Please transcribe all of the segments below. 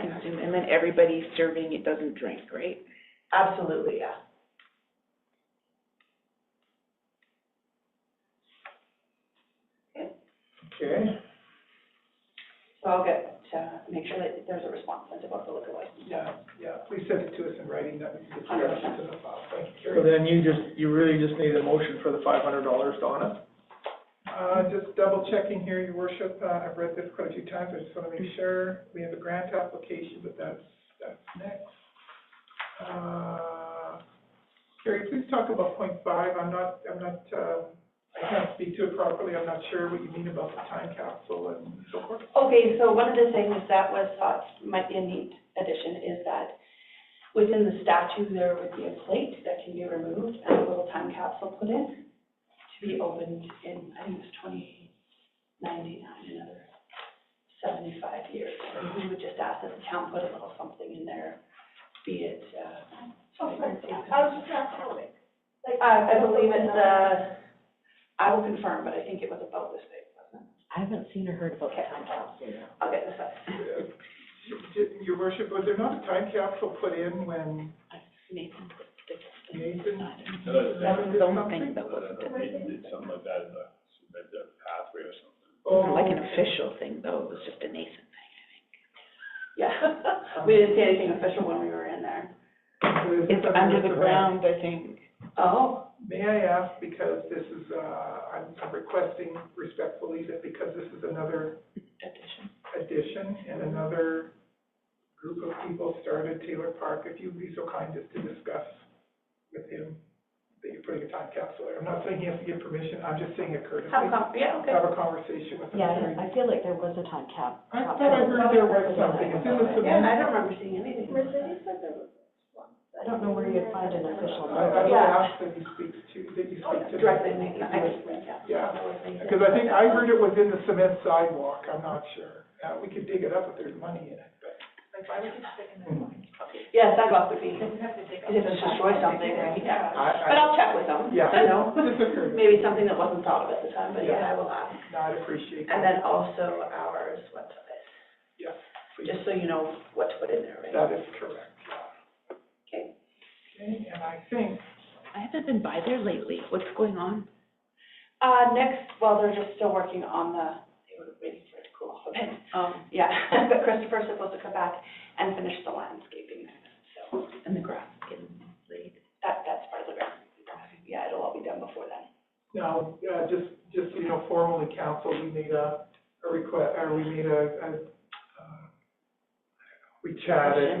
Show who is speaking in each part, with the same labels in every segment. Speaker 1: consume, and then everybody serving it doesn't drink, right?
Speaker 2: Absolutely, yeah.
Speaker 3: Okay,
Speaker 2: So I'll get to make sure that there's a response sent about the liquor license.
Speaker 3: yeah, yeah, please send it to us in writing, that we can get the
Speaker 2: Hundred
Speaker 3: rest
Speaker 2: percent.
Speaker 3: to the file, thank you,
Speaker 4: So
Speaker 3: Carrie.
Speaker 4: then you just, you really just need a motion for the five hundred dollars, Donna?
Speaker 3: Uh, just double checking here, your worship, uh, I've read this quite a few times, I just wanna make sure, we have a grant application, but that's, that's next. Uh, Carrie, please talk about point five, I'm not, I'm not, uh, I can't speak to it properly, I'm not sure what you mean about the time capsule and so forth.
Speaker 2: Okay, so one of the things that was thought might be a neat addition is that within the statue, there would be a plate that can be removed and a little time capsule put in to be opened in, I think it was twenty ninety-nine, another seventy-five years. And we would just ask that the town put a little something in there, be it, uh.
Speaker 5: Oh, I was just oh, not telling. Like,
Speaker 2: I, I believe it's, uh, I will confirm, but I think it was about this big, wasn't it?
Speaker 6: I haven't seen or heard about the time capsule.
Speaker 2: I'll get this up.
Speaker 3: Uh, did- Your worship, was there not a time capsule put in when
Speaker 2: Nathan.
Speaker 3: Nathan?
Speaker 1: That was the only thing that was,
Speaker 7: Something like that, in the, like the pathway or something.
Speaker 3: Oh,
Speaker 1: like an official thing, though, it was just a Nathan
Speaker 2: Yeah, we didn't see anything official when we were in there.
Speaker 3: so
Speaker 1: thing.
Speaker 3: this is
Speaker 1: It's under the
Speaker 3: something-
Speaker 1: ground, I think.
Speaker 2: Oh,
Speaker 3: May I ask, because this is, uh, I'm I'm requesting respectfully that because this is another addition and another group of people started Taylor Park, if you'd be so kind as to discuss with him that you're putting a time capsule there. I'm not saying he has to get permission, I'm just saying it courtesy.
Speaker 2: have a con, yeah, okay.
Speaker 3: Have a conversation with him.
Speaker 6: Yeah, I- I feel like there was a time cap.
Speaker 3: I thought I heard there was something, it's in the
Speaker 2: Yeah, and
Speaker 3: submission.
Speaker 2: I don't remember seeing anything.
Speaker 5: Mercedes said there was one.
Speaker 6: I don't know where you'd find an official
Speaker 3: I, I
Speaker 6: number.
Speaker 3: would
Speaker 2: Yeah.
Speaker 3: ask that he speaks to, that you speak
Speaker 2: Oh,
Speaker 3: to.
Speaker 2: Directly, Nathan, I just,
Speaker 3: Yeah.
Speaker 2: yeah.
Speaker 3: Because I think I heard it was in the cement sidewalk, I'm not sure. Uh, we could dig it up if there's money in it, but. Hmm.
Speaker 5: Like, why would you stick in there?
Speaker 2: Yeah, sidewalk would be,
Speaker 5: You have to dig up.
Speaker 2: if it's destroy something, right, yeah. But
Speaker 3: I, I,
Speaker 2: I'll check with them,
Speaker 3: yeah.
Speaker 2: you know,
Speaker 3: Just a curious.
Speaker 2: maybe something that wasn't thought of at the time, but yeah, I will ask.
Speaker 3: No, I'd appreciate
Speaker 2: And
Speaker 3: that,
Speaker 2: then also ours, what's this,
Speaker 3: yes, please.
Speaker 2: just so you know what to put in there, right?
Speaker 3: That is correct, yeah.
Speaker 2: Okay.
Speaker 3: Okay, and I think,
Speaker 1: I haven't been by there lately, what's going on?
Speaker 2: Uh, next, well, they're just still working on the, they were waiting for it to cool off a bit.
Speaker 1: Um,
Speaker 2: Yeah, but Christopher's supposed to come back and finish the landscaping next, so
Speaker 1: and the grass is getting laid.
Speaker 2: that, that's part of the ground. Yeah, it'll all be done before then.
Speaker 3: now, uh, just, just, so you know, formally, council, we made a, a request, or we made a, a, uh, we chatted.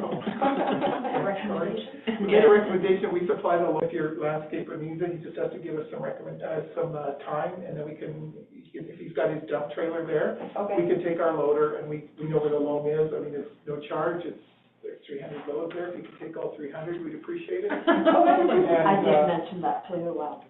Speaker 3: Sorry. We made a recommendation, we supply the, lo- if your landscaper needs it, he just has to give us some recommend, uh, some, uh, time, and then we can, if, if he's got his dump trailer there, we
Speaker 2: Okay,
Speaker 3: can take our loader, and we, we know where the loam is, I mean, it's no charge, it's, there's three hundred loads there, if you could take all three hundred, we'd appreciate it.
Speaker 6: I
Speaker 3: And,
Speaker 6: did
Speaker 3: uh,
Speaker 6: mention that to, um,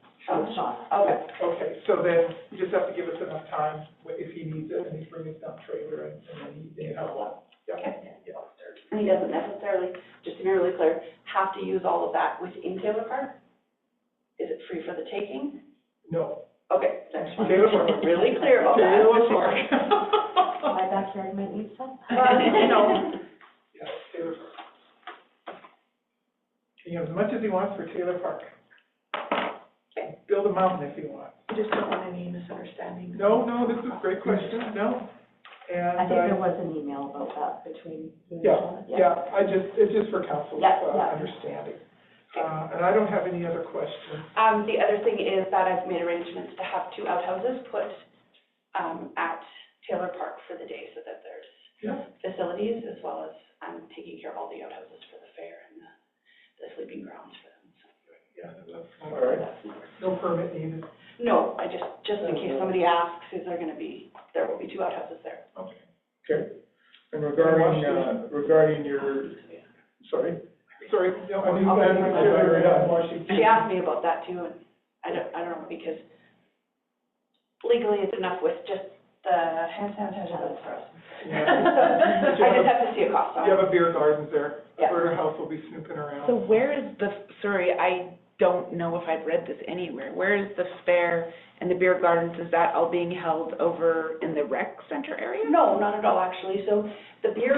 Speaker 6: Shauna.
Speaker 2: okay,
Speaker 3: Okay, so then, you just have to give us enough time, wh- if he needs it, and he's bringing his dump trailer, and, and then he, they have one. Yeah, yeah.
Speaker 2: and he doesn't necessarily, just to be really clear, have to use all of that within Taylor Park? Is it free for the taking?
Speaker 3: No.
Speaker 2: Okay, that's fine.
Speaker 3: Taylor Park.
Speaker 2: Really clear about that.
Speaker 3: Taylor Park.
Speaker 6: My backyard might need some.
Speaker 2: Well, you know,
Speaker 3: Yeah, Taylor Park. You know, as much as he wants for Taylor Park. Build a mountain if he wants.
Speaker 2: I just don't want any misunderstandings.
Speaker 3: No, no, this is a great question, no. And,
Speaker 6: I think there
Speaker 3: uh,
Speaker 6: was an email about that between you and
Speaker 3: yeah,
Speaker 6: Shauna.
Speaker 3: yeah, I just, it's just for council's,
Speaker 6: Yeah, yeah.
Speaker 3: uh, understanding. Uh, and I don't have any other questions.
Speaker 2: Um, the other thing is that I've made arrangements to have two outhouses put, um, at Taylor Park for the day so that there's
Speaker 3: Yeah.
Speaker 2: facilities as well as, um, taking care of all the outhouses for the fair and the, the sleeping grounds for them, so.
Speaker 3: Yeah, that's, all right, no permit needed,
Speaker 2: No, I just, just in case somebody asks, is there gonna be, there will be two outhouses there.
Speaker 3: okay.
Speaker 4: Okay. And regarding, uh, regarding your, sorry?
Speaker 3: Sorry, no, I mean,
Speaker 2: Okay.
Speaker 3: I'm sorry, I'm watching.
Speaker 2: She asked me about that too, and I don't, I don't know, because legally it's enough with just the hand sanitizer for us.
Speaker 3: Yeah.
Speaker 2: I just have to see a cost on
Speaker 3: You
Speaker 2: it.
Speaker 3: have a beer garden there,
Speaker 2: Yeah.
Speaker 3: Alberta House will be snooping around.
Speaker 1: So where is the, sorry, I don't know if I've read this anywhere, where is the fair and the beer gardens, is that all being held over in the rec center area?
Speaker 2: No, not at all, actually, so the beer